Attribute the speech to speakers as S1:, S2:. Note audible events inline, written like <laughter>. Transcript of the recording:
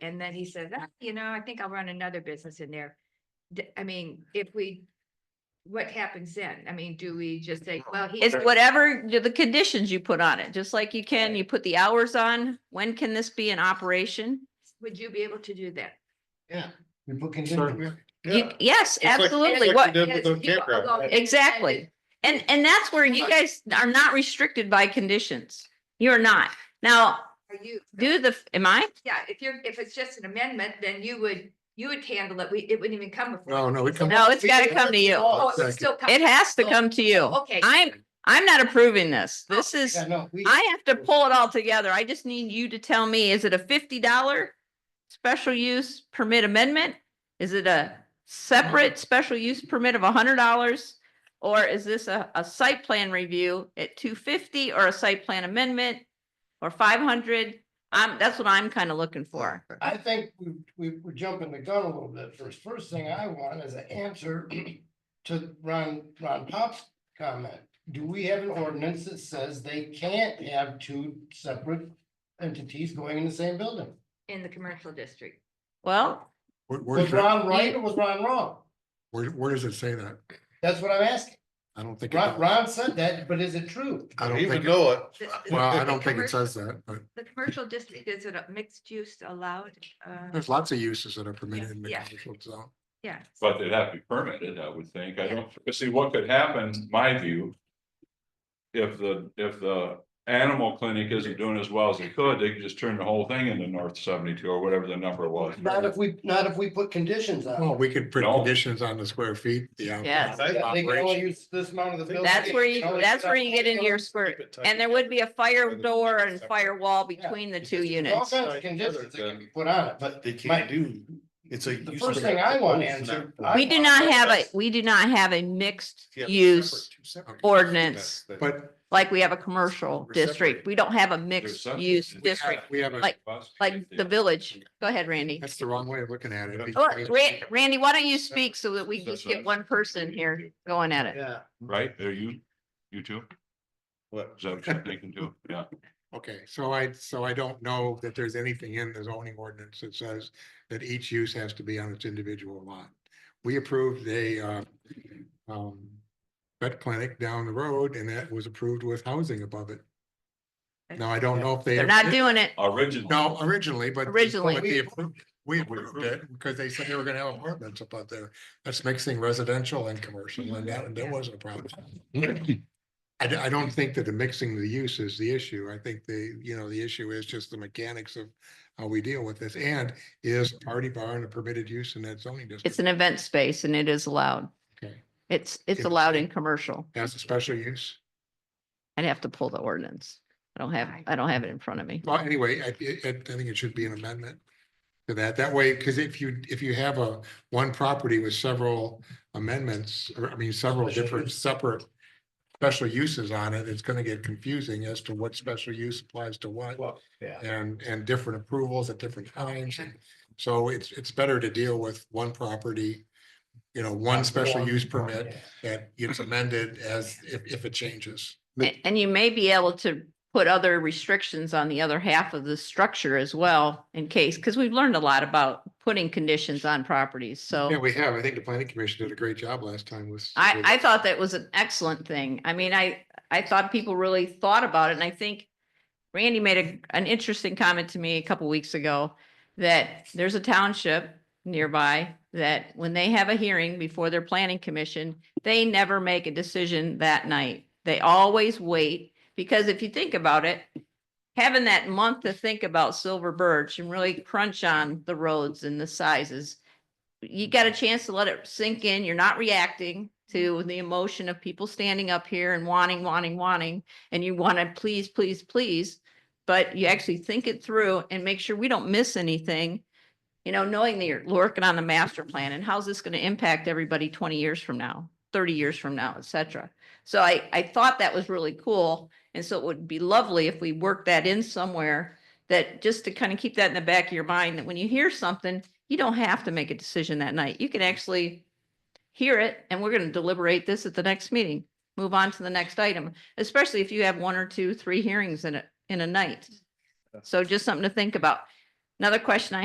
S1: and then he says, "Ah, you know, I think I'll run another business in there. D- I mean, if we, what happens then? I mean, do we just say, well, he.
S2: It's whatever the conditions you put on it, just like you can, you put the hours on, when can this be in operation?
S1: Would you be able to do that?
S3: Yeah. We book in.
S4: Sure.
S2: You- Yes,
S4: like-
S2: absolutely.
S4: like
S2: What,
S4: you did with
S1: Yes,
S4: the
S1: you-
S4: campground.
S1: although-
S2: Exactly. And, and that's where you guys are not restricted by conditions. You're not. Now,
S1: Are you,
S2: do the, am I?
S1: yeah, if you're, if it's just an amendment, then you would, you would handle it. We, it wouldn't even come before.
S3: No, no, we come.
S2: No, it's gotta come to you.
S1: Oh, it would still come.
S2: It has to come to you.
S1: Okay.
S2: I'm, I'm not approving this. This is,
S3: Yeah, no, we-
S2: I have to pull it all together. I just need you to tell me, is it a fifty dollar special use permit amendment? Is it a separate special use permit of hundred dollars? Or is this a, a site plan review at two fifty or a site plan amendment or five hundred? Um, that's what I'm kind of looking for.
S3: I think we, we, we're jumping the gun a little bit first. First thing I want is an answer <clears throat> to Ron, Ron Pop's comment. Do we have an ordinance that says they can't have two separate entities going in the same building?
S1: In the commercial district.
S2: Well,
S5: Where, where
S3: Was
S5: does, it-
S3: Ron right or was Ron wrong?
S5: where, where does it say that?
S3: That's what I'm asking.
S5: I don't think. it
S3: Ron,
S5: does.
S3: Ron said that, but is it true?
S5: I
S4: Don't
S5: don't
S4: even
S5: think,
S4: know it.
S1: The- the-
S5: well, I
S1: the
S5: don't think it
S1: commercial-
S5: says that, but
S1: The commercial district, is it a mixed use allowed? Uh,
S5: there's lots of uses that are permitted in the
S1: Yeah.
S5: commercial zone.
S1: yeah.
S6: But they'd have to be permitted, I would think. I don't, but see, what could happen, my view. If the, if the animal clinic isn't doing as well as it could, they could just turn the whole thing into North seventy-two or whatever the number was.
S3: Not if we, not if we put conditions on.
S5: Well,
S3: it.
S5: we could put
S6: No.
S5: conditions on the square feet, the. out-
S2: Yes.
S3: They can only
S5: operation.
S3: use this amount of the building.
S2: that's where you,
S3: They can only
S2: that's
S3: put
S2: where
S3: up
S2: you get into your squirt. And there would be a fire door and fire wall between the two
S3: There's All
S2: units.
S3: kinds of conditions that can be put on it, but
S4: They
S3: can't
S4: do, it's a.
S3: the first thing I want answered. I
S2: We do
S3: want-
S2: not have a, we do not have a mixed use ordinance
S5: But
S2: like we have a commercial
S5: We're
S2: district.
S5: separated.
S2: We don't have a
S6: There's
S2: mixed
S6: some-
S2: use
S6: we have-
S2: district
S5: we have a-
S2: like- like the village. Go ahead, Randy.
S5: that's the wrong way of looking at it.
S2: Oh,
S5: because
S2: Ra- Randy, why don't you speak so that we
S6: That's
S2: just get
S6: right.
S2: one person here going at it?
S3: Yeah.
S6: Right, are you, you two,
S4: What?
S6: is that what you're thinking too? Yeah,
S5: Okay, so I, so I don't know that there's anything in the zoning ordinance that says that each use has to be on its individual lot. We approved a, uh, um, vet clinic down the road and that was approved with housing above it. Now, I don't know if they.
S2: They're not doing it.
S6: original.
S5: No, originally, but.
S2: Originally.
S5: but they approved- We approved it because they said they were gonna have apartments up out there. That's mixing residential and commercial and that, and that wasn't a problem. I, d- I don't think that the mixing the use is the issue. I think the, you know, the issue is just the mechanics of how we deal with this and is party barn a permitted use in that zoning
S2: It's
S5: district?
S2: an event space and it is allowed.
S5: Okay.
S2: It's, it's allowed in commercial.
S5: That's a special use.
S2: I'd have to pull the ordinance. I don't have, I don't have it in front of me.
S5: Well, anyway, I, I I think it should be an amendment to that. That way, because if you, if you have a, one property with several amendments, or I mean, several
S3: Special
S5: different
S3: use.
S5: separate special uses on it, it's gonna get confusing as to what special use applies to what
S3: Well, yeah.
S5: and, and different approvals at different times. And So it's, it's better to deal with one property, you know, one special use permit that gets amended as, if, if it changes.
S2: A- And you may be able to put other restrictions on the other half of the structure as well in case, because we've learned a lot about putting conditions on properties.
S5: Yeah,
S2: So
S5: we have. I think the planning commission did a great job last time with.
S2: I,
S5: with-
S2: I thought that was an excellent thing. I mean, I, I thought people really thought about it and I think Randy made a, an interesting comment to me a couple weeks ago that there's a township nearby that when they have a hearing before their planning commission, they never make a decision that night. They always wait, because if you think about it, having that month to think about Silver Birch and really crunch on the roads and the sizes, you got a chance to let it sink in. You're not reacting to the emotion of people standing up here and wanting, wanting, wanting, and you want to please, please, please. But you actually think it through and make sure we don't miss anything. You know, knowing that you're working on the master plan and how's this going to impact everybody twenty years from now, thirty years from now, et cetera. So I, I thought that was really cool. And so it would be lovely if we worked that in somewhere that just to kind of keep that in the back of your mind, that when you hear something, you don't have to make a decision that night. You can actually hear it and we're going to deliberate this at the next meeting. Move on to the next item, especially if you have one or two, three hearings in a, in a night. So just something to think about. Another question I